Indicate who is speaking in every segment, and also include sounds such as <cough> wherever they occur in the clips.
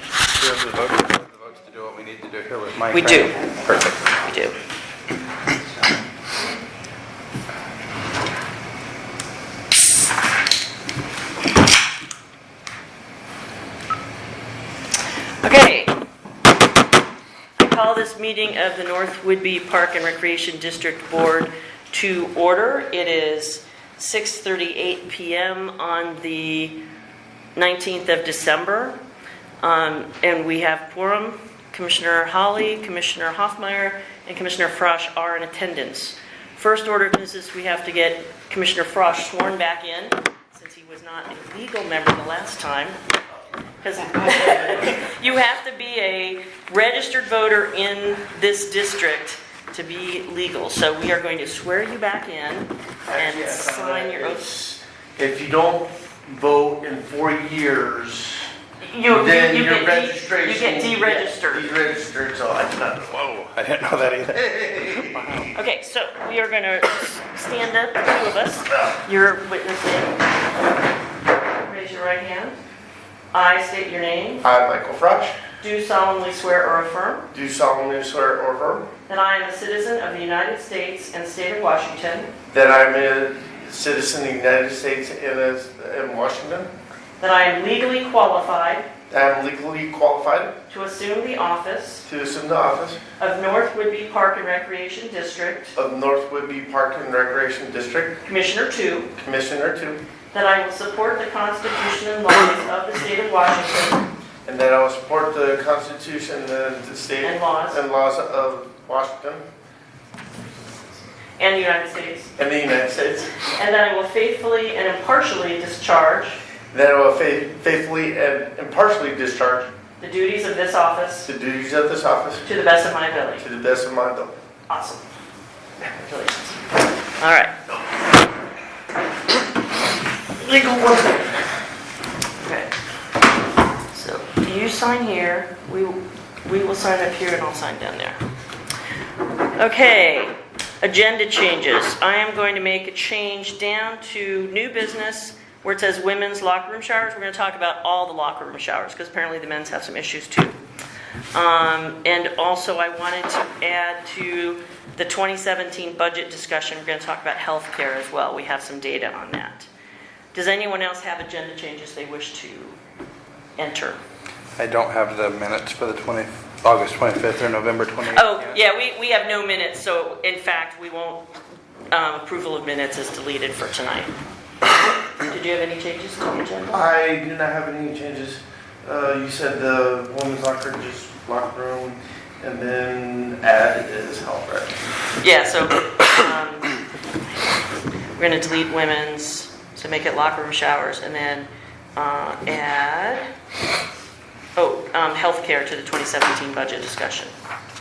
Speaker 1: reserve the vote, we have the votes to do what we need to do here with Mike.
Speaker 2: We
Speaker 1: right?
Speaker 2: do.
Speaker 1: Perfect.
Speaker 2: We do. Okay. I call this meeting of the North Woodby Park and Recreation District Board to order. It is 6:38 PM on the 19th of December. Um, And we have quorum. Commissioner Holly, Commissioner Hoffmeyer, and Commissioner Frosch are in attendance. First order of business, we have to get Commissioner Frosch sworn back in, since he was not a legal member the last time. 'Cause <laughs> You have to be a registered voter in this district to be legal. So we are going to swear you back in
Speaker 3: Actually, I
Speaker 2: and
Speaker 3: found
Speaker 2: sign
Speaker 3: that
Speaker 2: your oath.
Speaker 3: it's- If you don't vote in four years,
Speaker 2: You, you
Speaker 3: then
Speaker 2: you
Speaker 3: your
Speaker 2: get de-
Speaker 3: registration.
Speaker 2: you get
Speaker 3: will
Speaker 2: deregistered.
Speaker 3: Deregistered, so I
Speaker 2: <laughs>
Speaker 3: don't know.
Speaker 1: Whoa, Oh, I didn't know that either.
Speaker 2: Okay, so we are gonna stand up, the two of us. You're witnessing. Raise your right hand. I state your name.
Speaker 3: I, Michael Frosch,
Speaker 2: Do solemnly swear or affirm
Speaker 3: do solemnly swear or affirm
Speaker 2: that I am a citizen of the United States and state of Washington,
Speaker 3: that I'm a citizen of the United States and is- in Washington,
Speaker 2: that I am legally qualified
Speaker 3: that I'm legally qualified
Speaker 2: to assume the office
Speaker 3: to assume the office
Speaker 2: of North Woodby Park and Recreation District
Speaker 3: of North Woodby Park and Recreation District
Speaker 2: Commissioner Two,
Speaker 3: Commissioner Two,
Speaker 2: that I will support the Constitution and laws of the state of Washington
Speaker 3: and that I will support the Constitution of the state
Speaker 2: and laws
Speaker 3: and laws of Washington
Speaker 2: and the United States,
Speaker 3: and the United States.
Speaker 2: and that I will faithfully and impartially discharge
Speaker 3: That I will fa- faithfully and impartially discharge
Speaker 2: the duties of this office
Speaker 3: the duties of this office
Speaker 2: to the best of my ability.
Speaker 3: to the best of my ability.
Speaker 2: Awesome. Congratulations. All right. Legal work. Okay. So you sign here, we, we will sign up here and I'll sign down there. Okay, agenda changes. I am going to make a change down to new business where it says women's locker room showers. We're going to talk about all the locker room showers because apparently the men's have some issues too. Um, And also, I wanted to add to the 2017 budget discussion, we're going to talk about healthcare as well. We have some data on that. Does anyone else have agenda changes they wish to enter?
Speaker 1: I don't have the minutes for the 20, August 25th or November 28th.
Speaker 2: Oh,
Speaker 1: yet.
Speaker 2: yeah, we, we have no minutes, so in fact, we won't, um, approval of minutes is deleted for tonight. <coughs> Did you have any changes to the agenda?
Speaker 3: I do not have any changes. Uh, you said the women's locker, just locker room, and then add is health, right?
Speaker 2: Yeah, so um, we're going to delete women's, so make it locker room showers, and then uh, add, oh, um, healthcare to the 2017 budget discussion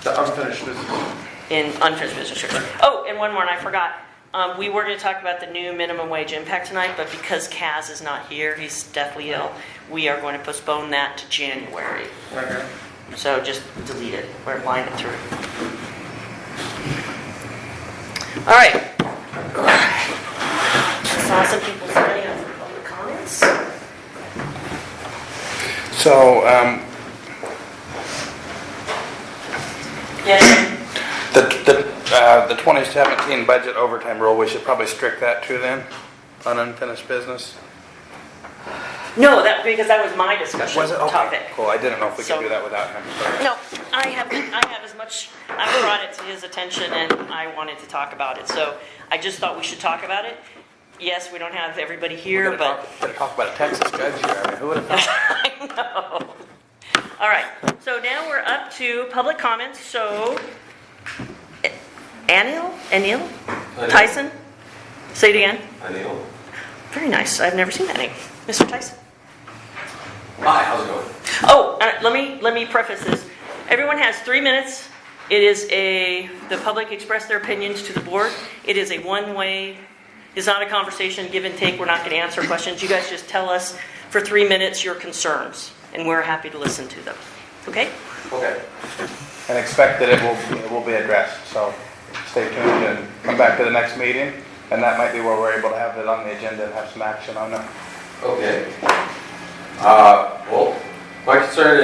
Speaker 3: The unfinished business.
Speaker 2: in unfinished business. here. Oh, and one more, and I forgot. Um, We were going to talk about the new minimum wage impact tonight, but because Kaz is not here, he's deathly ill, we are going to postpone that to January.
Speaker 3: Okay.
Speaker 2: So just delete it or line it through. All right. I saw some people signing up for public comments.
Speaker 1: So, um,
Speaker 2: Yes,
Speaker 1: the, the, uh, the 2017 budget overtime rule, we should probably strict that too then, on unfinished business?
Speaker 2: no, that, because that was my discussion
Speaker 1: Was it? Okay,
Speaker 2: topic.
Speaker 1: Cool, I didn't know if we could
Speaker 2: So-
Speaker 1: do that without him.
Speaker 2: No, I have, I have as much, I brought it to his attention and I wanted to talk about it, so I just thought we should talk about it. Yes, we don't have everybody
Speaker 1: We're
Speaker 2: here,
Speaker 1: gonna
Speaker 2: but.
Speaker 1: talk- Gonna talk about a Texas judge here, I mean, who would've thought?
Speaker 2: <laughs> I know. All right, so now we're up to public comments, so Anil, Anil, Tyson? Say it again.
Speaker 4: Anil.
Speaker 2: Very nice, I've never seen that name. Mr. Tyson?
Speaker 4: Hi, how's it going?
Speaker 2: Oh, uh, let me, let me preface this. Everyone has three minutes. It is a, the public express their opinions to the board. It is a one-way, it's not a conversation, give and take. We're not going to answer questions. You guys just tell us for three minutes your concerns, and we're happy to listen to them. Okay?
Speaker 4: Okay.
Speaker 1: And expect that it will, it will be addressed, so stay tuned and come back to the next meeting. And that might be where we're able to have it on the agenda and have some action on it.
Speaker 4: Okay. Uh, well, my concern